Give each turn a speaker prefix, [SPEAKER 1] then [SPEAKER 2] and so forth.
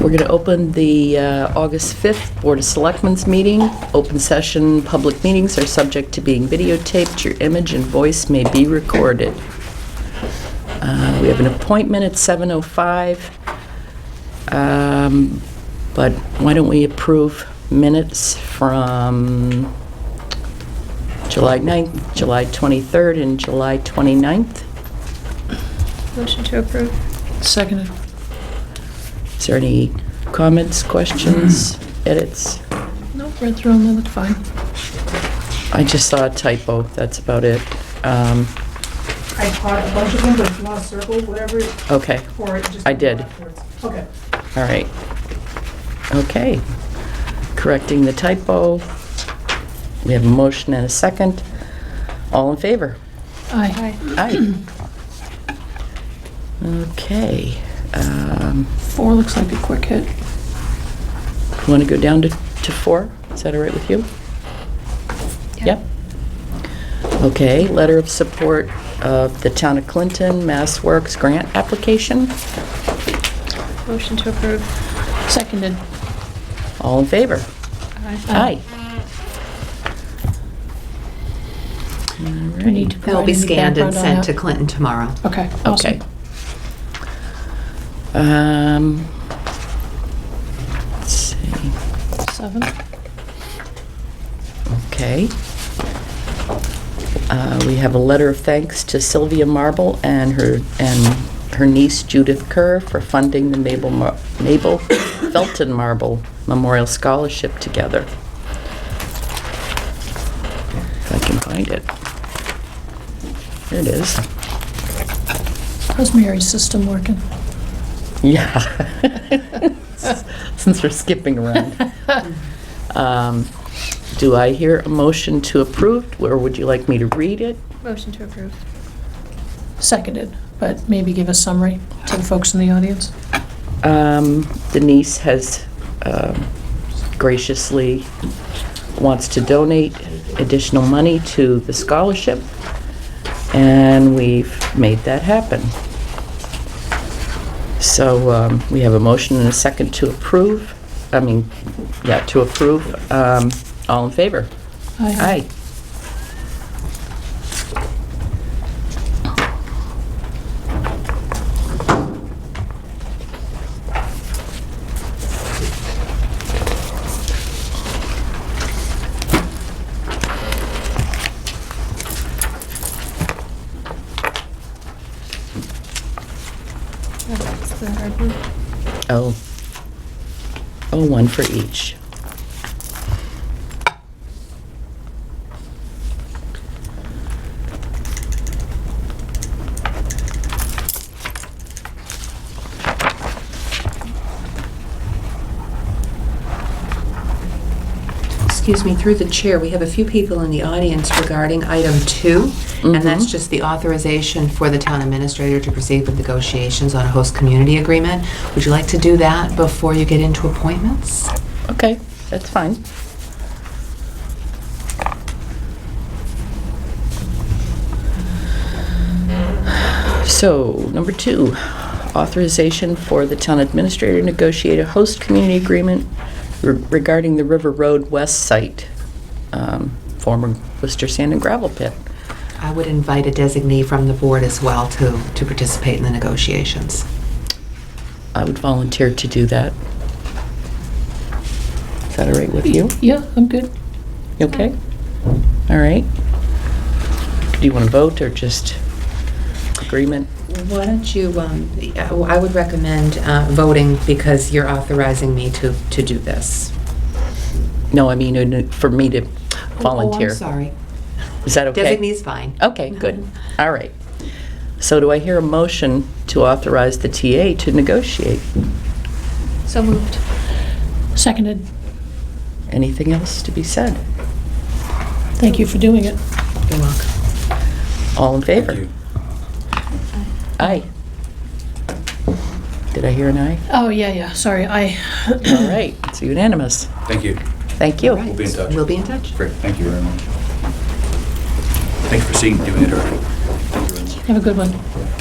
[SPEAKER 1] We're going to open the uh, August 5th Board of Selectmen's meeting. Open session, public meetings are subject to being videotaped. Your image and voice may be recorded. Uh, We have an appointment at 7:05, Um, but why don't we approve minutes from July 9th, July 23rd, and July 29th?
[SPEAKER 2] Motion to approve.
[SPEAKER 3] Seconded.
[SPEAKER 1] Is there any comments, questions, edits?
[SPEAKER 3] Nope, read through them, they look fine.
[SPEAKER 1] I just saw a typo, that's about it. Um,
[SPEAKER 4] I caught a bunch of them, but if you want to circle whatever,
[SPEAKER 1] Okay,
[SPEAKER 4] or it just.
[SPEAKER 1] I did.
[SPEAKER 4] afterwards. Okay.
[SPEAKER 1] all right. Okay. Correcting the typo. We have a motion and a second. All in favor?
[SPEAKER 3] Aye.
[SPEAKER 1] Aye. Okay. Um,
[SPEAKER 3] Four looks like a quick hit.
[SPEAKER 1] Want to go down to to four? Is that all right with you? Yep. Okay, letter of support of the Town of Clinton Mass Works grant application.
[SPEAKER 2] Motion to approve.
[SPEAKER 3] Seconded.
[SPEAKER 1] All in favor? Aye.
[SPEAKER 3] Do we need to
[SPEAKER 5] They'll
[SPEAKER 3] provide
[SPEAKER 5] be
[SPEAKER 3] any
[SPEAKER 5] scanned and
[SPEAKER 3] background on
[SPEAKER 5] sent to
[SPEAKER 3] that?
[SPEAKER 5] Clinton tomorrow.
[SPEAKER 3] Okay,
[SPEAKER 1] Okay.
[SPEAKER 3] awesome.
[SPEAKER 1] Um, let's see,
[SPEAKER 3] Seven.
[SPEAKER 1] okay. Uh, we have a letter of thanks to Sylvia Marble and her, and her niece Judith Kerr for funding the Mabel, Mar- Mabel Felton Marble Memorial Scholarship together. If I can find it. There it is.
[SPEAKER 3] How's Mary's system working?
[SPEAKER 1] Yeah. Since we're skipping around. Um, Do I hear a motion to approve, or would you like me to read it?
[SPEAKER 2] Motion to approve.
[SPEAKER 3] Seconded, but maybe give a summary to the folks in the audience.
[SPEAKER 1] Um, Denise has um, graciously wants to donate additional money to the scholarship, and we've made that happen. So um, we have a motion and a second to approve, I mean, yeah, to approve. Um, All in favor? Aye.
[SPEAKER 2] That's the hard one.
[SPEAKER 1] Oh. Oh, one for each.
[SPEAKER 5] Excuse me, through the chair, we have a few people in the audience regarding item two, and that's just the authorization for the town administrator to proceed with negotiations on a host community agreement. Would you like to do that before you get into appointments?
[SPEAKER 1] Okay, that's fine. So, number two, authorization for the town administrator to negotiate a host community agreement re- regarding the River Road West site, um, former Worcester Sand and Gravel Pit.
[SPEAKER 5] I would invite a designee from the board as well to, to participate in the negotiations.
[SPEAKER 1] I would volunteer to do that. Is that all right with you?
[SPEAKER 3] Yeah, I'm good.
[SPEAKER 1] You Okay? All right. Do you want to vote or just agreement?
[SPEAKER 5] Why don't you, um, I would recommend uh, voting because you're authorizing me to, to do this.
[SPEAKER 1] No, I mean, uh, for me to
[SPEAKER 5] Oh,
[SPEAKER 1] volunteer.
[SPEAKER 5] I'm sorry.
[SPEAKER 1] Is that okay? Oh.
[SPEAKER 5] Designee's fine.
[SPEAKER 1] Okay, good. All right. So do I hear a motion to authorize the TA to negotiate?
[SPEAKER 2] So moved.
[SPEAKER 3] Seconded.
[SPEAKER 1] Anything else to be said?
[SPEAKER 3] Thank you for doing it.
[SPEAKER 5] You're welcome.
[SPEAKER 1] All in favor? Aye. Did I hear an aye?
[SPEAKER 3] Oh, yeah, yeah, sorry, I,
[SPEAKER 1] All right, it's unanimous.
[SPEAKER 6] Thank you.
[SPEAKER 1] Thank
[SPEAKER 5] All
[SPEAKER 1] you.
[SPEAKER 5] right.
[SPEAKER 6] be in touch.
[SPEAKER 5] We'll be in touch.
[SPEAKER 6] Great, thank you very much. Thanks for seeing, doing it early.
[SPEAKER 3] have a good one.